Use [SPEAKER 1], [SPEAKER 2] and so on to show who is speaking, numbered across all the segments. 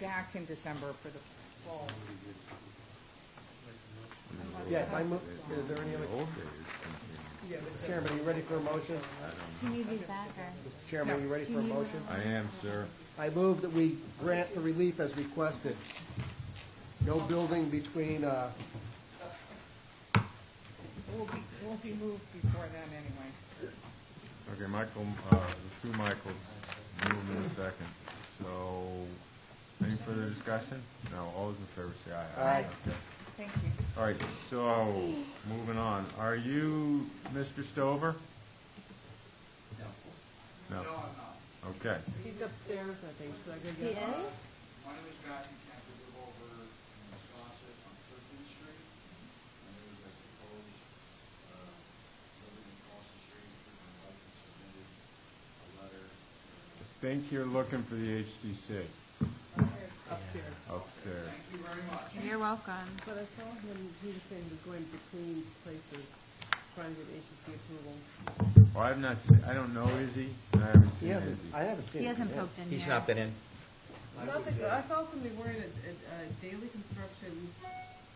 [SPEAKER 1] back in December for the fall. Unless
[SPEAKER 2] Yes, I
[SPEAKER 1] that's-
[SPEAKER 2] move, is there any other, yeah, Mr. Chairman, are you ready for a motion?
[SPEAKER 3] Do you need these back, or?
[SPEAKER 2] Mr. Chairman, are you ready for a motion?
[SPEAKER 4] I am, sir.
[SPEAKER 2] I move that we grant the relief as requested. No building between, uh,
[SPEAKER 1] It will be, it will be moved before then anyway.
[SPEAKER 4] Okay, Michael, uh, the two Michaels, move in a second. So, any further discussion? No, all those in favor say aye.
[SPEAKER 2] Aye.
[SPEAKER 4] Okay.
[SPEAKER 1] Thank you.
[SPEAKER 4] All right, so, moving on. Are you Mr. Stover? No. No? Okay.
[SPEAKER 5] He's upstairs, I think, so I
[SPEAKER 3] He
[SPEAKER 5] gotta get
[SPEAKER 3] is?
[SPEAKER 6] My name is Matthew Campbell, live over in Wisconsin on Thirteenth Street. And there was a proposed, uh, building across the street, and my wife had submitted a letter.
[SPEAKER 4] I
[SPEAKER 6] uh,
[SPEAKER 4] think you're looking for the HTC
[SPEAKER 5] upstairs.
[SPEAKER 4] upstairs.
[SPEAKER 6] Thank you very much.
[SPEAKER 3] You're welcome.
[SPEAKER 5] But I saw him, he was saying we're going between places, trying to get agency approval.
[SPEAKER 4] Well, I've not seen, I don't know Izzy, and I haven't
[SPEAKER 2] he
[SPEAKER 4] seen Izzy.
[SPEAKER 2] hasn't, I haven't seen
[SPEAKER 3] He
[SPEAKER 2] it.
[SPEAKER 3] hasn't
[SPEAKER 2] yet.
[SPEAKER 3] poked in yet.
[SPEAKER 7] He's not been in.
[SPEAKER 5] Not that, I saw somebody wearing a, a, a daily construction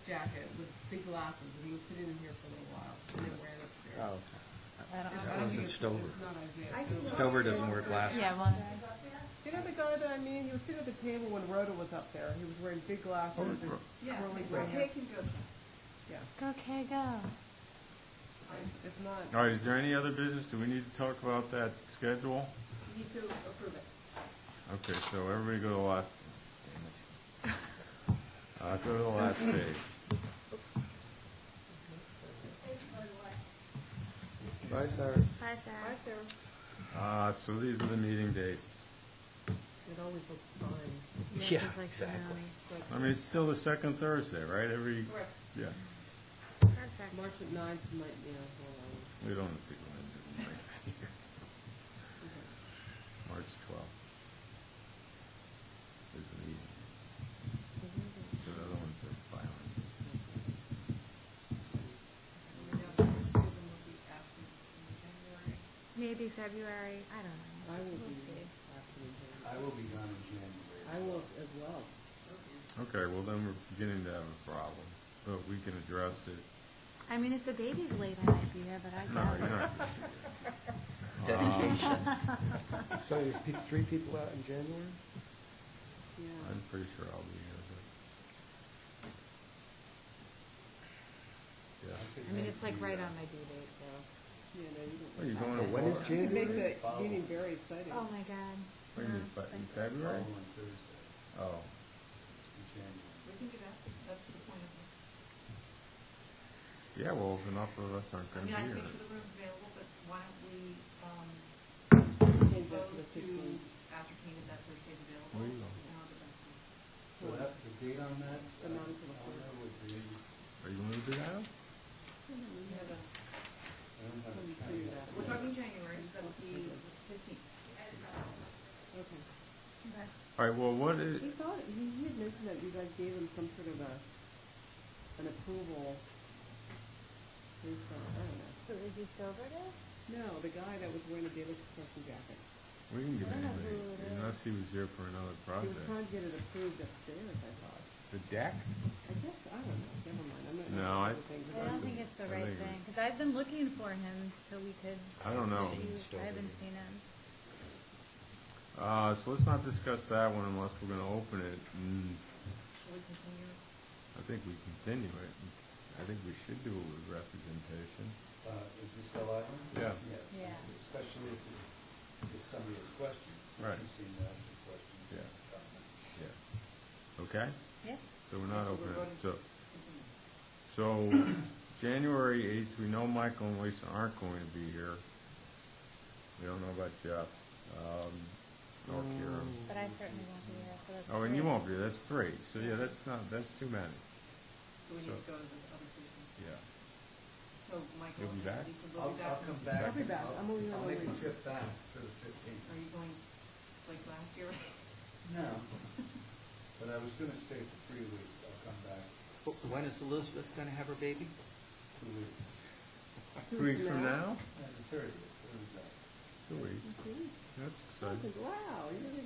[SPEAKER 5] jacket with big glasses, and he was sitting in here for a little while, and then ran
[SPEAKER 2] Oh,
[SPEAKER 5] upstairs.
[SPEAKER 3] I don't
[SPEAKER 5] I
[SPEAKER 3] know.
[SPEAKER 5] don't
[SPEAKER 7] wasn't
[SPEAKER 5] think it's-
[SPEAKER 7] Stover.
[SPEAKER 5] It's not Isaiah.
[SPEAKER 7] Stover doesn't wear glasses.
[SPEAKER 3] Yeah, one.
[SPEAKER 5] Do you know the guy that I mean? He was sitting at the table when Rhoda was up there. He was wearing big glasses.
[SPEAKER 4] Oh,
[SPEAKER 5] and
[SPEAKER 4] Ro-
[SPEAKER 5] Yeah, Rhoda can go. Yeah,
[SPEAKER 3] Go, Kay, go.
[SPEAKER 5] if not,
[SPEAKER 4] All right, is there any other business? Do we need to talk about that schedule?
[SPEAKER 5] you need to approve it.
[SPEAKER 4] Okay, so everybody go to the last, damn it. Uh, go to the last page.
[SPEAKER 2] Bye, Sarah.
[SPEAKER 3] Bye, Sarah.
[SPEAKER 4] Uh, so these are the meeting dates.
[SPEAKER 5] It always looks fine.
[SPEAKER 7] Yeah,
[SPEAKER 3] He's like,
[SPEAKER 7] exactly.
[SPEAKER 3] no, he's like-
[SPEAKER 4] I mean, it's still the second Thursday, right? Every,
[SPEAKER 5] Correct.
[SPEAKER 4] yeah,
[SPEAKER 3] Perfect.
[SPEAKER 5] March at ninth might be a whole lot.
[SPEAKER 4] we don't have to go into it. March twelfth is the meeting. The other ones are violent.
[SPEAKER 3] Maybe February, I don't know.
[SPEAKER 5] I will be
[SPEAKER 3] We'll see.
[SPEAKER 5] actually,
[SPEAKER 6] I will be gone in January.
[SPEAKER 5] I will as well.
[SPEAKER 4] Okay, well, then we're beginning to have a problem, but we can address it.
[SPEAKER 3] I mean, if the baby's late, I might be here, but I
[SPEAKER 4] No,
[SPEAKER 3] doubt
[SPEAKER 4] you're
[SPEAKER 3] it.
[SPEAKER 4] not. Um,
[SPEAKER 7] Dedication.
[SPEAKER 2] So there's pe- three people out in January?
[SPEAKER 5] Yeah.
[SPEAKER 4] I'm pretty sure I'll be here, but. Yeah.
[SPEAKER 3] I mean, it's like right
[SPEAKER 6] uh,
[SPEAKER 3] on my due date, so.
[SPEAKER 5] Yeah, no, you
[SPEAKER 4] Are you
[SPEAKER 5] don't.
[SPEAKER 4] going to
[SPEAKER 2] When is
[SPEAKER 4] Florida?
[SPEAKER 5] You can make
[SPEAKER 2] January?
[SPEAKER 5] the meeting very exciting.
[SPEAKER 3] Oh, my God.
[SPEAKER 4] Wait a minute, but in February?
[SPEAKER 6] Following Thursday,
[SPEAKER 4] Oh,
[SPEAKER 6] in January.
[SPEAKER 4] yeah, well, if enough of us aren't gonna be here.
[SPEAKER 5] Change that to the fifteenth.
[SPEAKER 4] Where you going?
[SPEAKER 6] So that, the date on that,
[SPEAKER 5] The
[SPEAKER 6] uh,
[SPEAKER 5] ninth of the
[SPEAKER 6] calendar would be, I
[SPEAKER 4] Are you gonna do that?
[SPEAKER 6] don't have a
[SPEAKER 5] Do
[SPEAKER 6] calendar.
[SPEAKER 5] that.
[SPEAKER 8] We're talking January, so that would be fifteenth.
[SPEAKER 5] Okay.
[SPEAKER 4] All right, well, what is,
[SPEAKER 5] He thought, he, he had mentioned that you guys gave him some sort of a, an approval. Based on, I don't know.
[SPEAKER 3] Who is he Stover to?
[SPEAKER 5] No, the guy that was wearing the daily construction jacket.
[SPEAKER 4] we can get
[SPEAKER 3] I don't know
[SPEAKER 4] anybody,
[SPEAKER 3] who it is.
[SPEAKER 4] unless he was here for another
[SPEAKER 5] He was trying
[SPEAKER 4] project.
[SPEAKER 5] to get it approved upstairs, I thought.
[SPEAKER 4] The deck?
[SPEAKER 5] I guess, I don't know, never mind, I'm not.
[SPEAKER 4] No,
[SPEAKER 5] gonna
[SPEAKER 4] I-
[SPEAKER 5] do things
[SPEAKER 3] I
[SPEAKER 5] about
[SPEAKER 3] don't
[SPEAKER 5] it.
[SPEAKER 3] think it's
[SPEAKER 4] I
[SPEAKER 3] the right
[SPEAKER 4] think it
[SPEAKER 3] thing,
[SPEAKER 4] was-
[SPEAKER 3] because I've been looking for him so we could.
[SPEAKER 4] I don't know.
[SPEAKER 7] Seen
[SPEAKER 3] see. I
[SPEAKER 7] Stover.
[SPEAKER 3] haven't seen him.
[SPEAKER 4] Uh, so let's not discuss that one unless we're gonna open it, and
[SPEAKER 8] Should we continue?
[SPEAKER 4] I think we continue it. I think we should do it with representation.
[SPEAKER 6] Uh, is this still on?
[SPEAKER 4] Yeah.
[SPEAKER 6] Yes.
[SPEAKER 3] Yeah.
[SPEAKER 6] Especially if, it's- if somebody has questions.
[SPEAKER 4] Right.
[SPEAKER 6] You've seen that as a question.
[SPEAKER 4] Yeah.
[SPEAKER 6] Comment.
[SPEAKER 4] Yeah. Okay?
[SPEAKER 3] Yeah.
[SPEAKER 4] So we're not
[SPEAKER 6] So we're
[SPEAKER 4] opening,
[SPEAKER 6] voting-
[SPEAKER 4] so, so, January eighth, we know Michael and Lisa aren't going to be here. We don't know about Jeff, um, or Karen.
[SPEAKER 3] But I certainly won't be here, so that's.
[SPEAKER 4] Oh, and you
[SPEAKER 3] great.
[SPEAKER 4] won't be, that's three, so yeah, that's not, that's too many,
[SPEAKER 8] So we need to go to the other station.
[SPEAKER 4] yeah.
[SPEAKER 8] So Michael,
[SPEAKER 4] You'll be back?
[SPEAKER 8] Lisa will
[SPEAKER 6] I'll,
[SPEAKER 8] be back.
[SPEAKER 6] I'll come back.
[SPEAKER 5] I'll be
[SPEAKER 6] and
[SPEAKER 5] back. I'm only
[SPEAKER 6] I'll
[SPEAKER 5] on
[SPEAKER 6] make a
[SPEAKER 5] leave.
[SPEAKER 6] trip back for the fifteenth.
[SPEAKER 8] Are you going like last year?
[SPEAKER 6] No. But I was gonna stay for three weeks. I'll come back
[SPEAKER 7] Wh- When is Elizabeth going to have her baby?
[SPEAKER 6] two weeks.
[SPEAKER 4] Two weeks from now?
[SPEAKER 6] And the thirtieth, it was, uh,
[SPEAKER 4] Two weeks,
[SPEAKER 5] You see?
[SPEAKER 4] that's
[SPEAKER 5] I
[SPEAKER 4] exciting.
[SPEAKER 5] think, wow, you're really